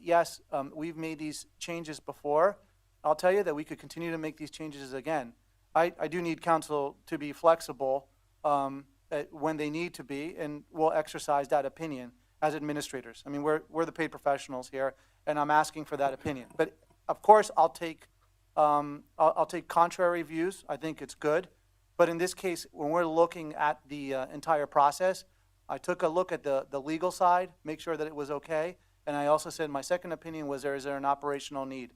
yes, um, we've made these changes before. I'll tell you that we could continue to make these changes again. I, I do need council to be flexible um, at- when they need to be, and we'll exercise that opinion as administrators. I mean, we're, we're the paid professionals here, and I'm asking for that opinion. But of course, I'll take, um, I'll, I'll take contrary views. I think it's good. But in this case, when we're looking at the uh, entire process, I took a look at the, the legal side, make sure that it was okay, and I also said, my second opinion was there, is there an operational need?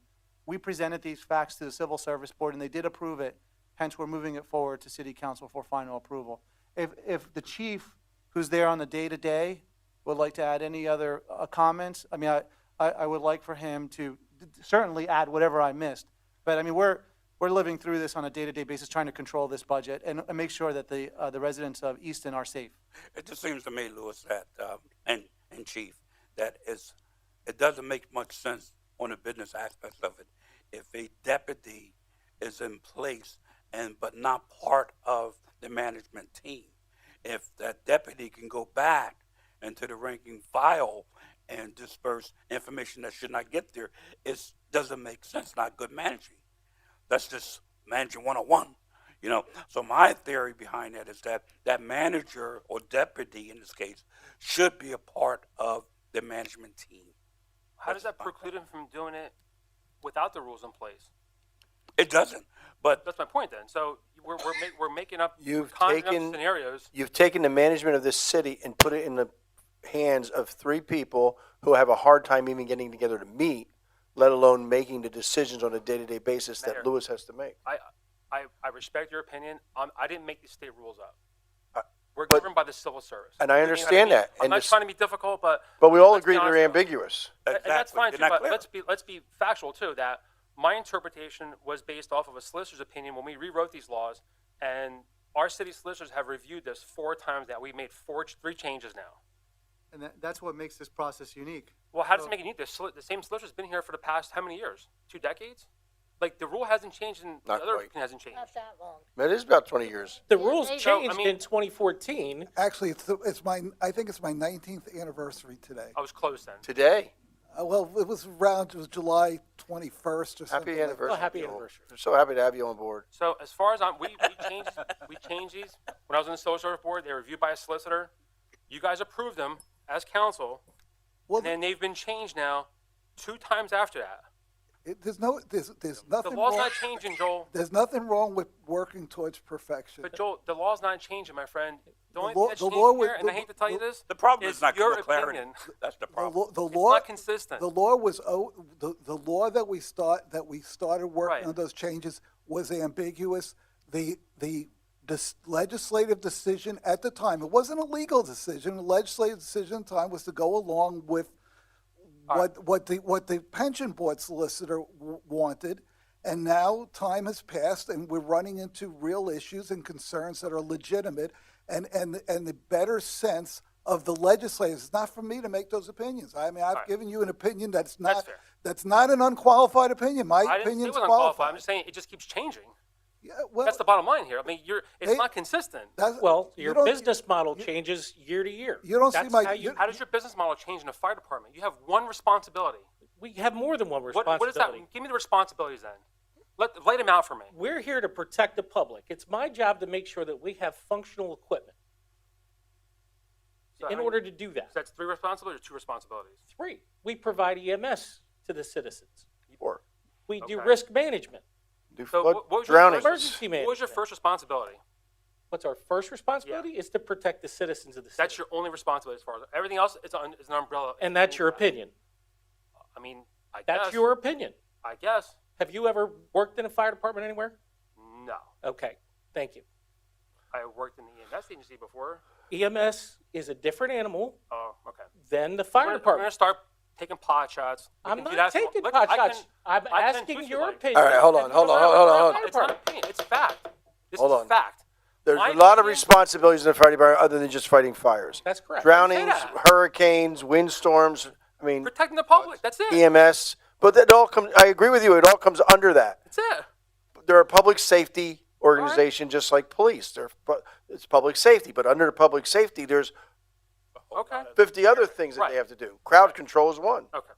We presented these facts to the Civil Service Board, and they did approve it, hence we're moving it forward to City Council for final approval. If, if the chief, who's there on the day-to-day, would like to add any other uh, comments, I mean, I, I I would like for him to certainly add whatever I missed, but I mean, we're, we're living through this on a day-to-day basis, trying to control this budget and, and make sure that the, uh, the residents of Easton are safe. It just seems to me, Lewis, that, um, and, and Chief, that it's, it doesn't make much sense on the business aspects of it. If a deputy is in place and, but not part of the management team, if that deputy can go back into the ranking file and disperse information that should not get there, it doesn't make sense, not good managing. That's just managing 101. You know, so my theory behind that is that that manager or deputy in this case should be a part of the management team. How does that preclude him from doing it without the rules in place? It doesn't, but That's my point. Then, so we're we're, make, we're making up we're You've conjuring up taken- scenarios. You've taken the management of this city and put it in the hands of three people who have a hard time even getting together to meet, let alone making the decisions on a day-to-day basis Mayor. that Lewis has to make. I I, I respect your opinion. Um, I didn't make these state rules up. Uh, We're but- governed by the civil service, and I You know what understand mean? that, I'm and not this- trying to be difficult, but But we all let's be agree they're honest about it. ambiguous. And- and that's Exactly. fine They're too. not But clear. let's be let's be factual too. That my interpretation was based off of a solicitor's opinion when we rewrote these laws, and our city solicitors have reviewed this four times. Now we made four three changes now. And that, that's what makes this process unique. Well, how does it make it neat? The, soli- the same solicitor's been here for the past how many years? Two decades? Like the rule hasn't changed, and Not the other quite. thing hasn't changed. Not that long. It is about 20 years. The Yeah, rules they- So, I changed mean- in 2014. Actually, it's, the- it's my, I think it's my 19th anniversary today. I was close then. Today, Uh, well, it was around, it was July 21st or something. happy like- anniversary. Oh, happy Joel. anniversary. We're so happy to have you on board. So as far as I'm, we, we changed we changed these when I was on the social service board. They were reviewed by a solicitor. You guys approved them as council, Well, and then they've been changed now two times after that. it, there's no, there's, there's The nothing law's wrong. not changing, Joel. There's nothing wrong with working towards perfection. But Joel, the law's not changing, my friend. The The only law- thing that's the changing law was- here, and I the- hate to tell you the- this, the problem is not your clear clarity. opinion. That's the the, problem. law, the It's law, not consistent. The law was oh, the, the law that we start that we started working Right. on those changes was ambiguous. The the dis- legislative decision at the time it wasn't a legal decision. The legislative decision at the time was to go along with what what the what the pension board solicitor w- wanted. And now time has passed, and we're running into real issues and concerns that are legitimate, and and and the better sense of the legislators. It's not for me to make those opinions. I mean, I've given you an opinion that's not fair. that's not an unqualified opinion. I My didn't say it opinion's was unqualified. qualified. I'm just saying it just keeps changing. yeah, well, That's the bottom line here. I mean, you're it's They- not consistent. that's- Well, you your don't- business model changes year to year. You don't see That's my- how you- you, How does your business model change in a fire department? You have one responsibility. we have more than one What, what is that? responsibility. Give me the responsibilities then. Let lay them out for me. We're here to protect the public. It's my job to make sure that we have functional equipment. So, I In mean, order to do so that, that's three responsibilities or two responsibilities. three, we provide EMS to the citizens. Or We do Okay. risk management. do So flood what, what was drownings. Your first, Emergency what was your management. first responsibility? What's our first responsibility? Is to protect the citizens of the city. That's your only responsibility as far as everything else. It's an, it's an umbrella. and that's your opinion. I mean, I That's guess. your opinion. I guess. Have you ever worked in a fire department anywhere? No, Okay, thank you. I worked in the EMS agency before. EMS E is a different animal Oh, okay. than the We're- fire We're gonna department. start taking pot shots. We I'm can do not that. taking Look, pot I can- shots. I'm I can asking tweet your you. opinion. All right, hold on, hold on, hold on, hold on. It's not opinion. It's fact. This Hold is on. fact. There's My a lot of opinion- responsibilities in the fire department other than just fighting fires. That's correct. Drownings, Say that. hurricanes, windstorms. I mean, Protecting the public. That's it. EMS. E But that all comes. I agree with you. It all comes under that. That's it. They're a public safety organization, just like police. They're pu- it's public safety, but under public safety, there's Okay. 50 other things that Right. they have to do. Crowd control is one. Okay.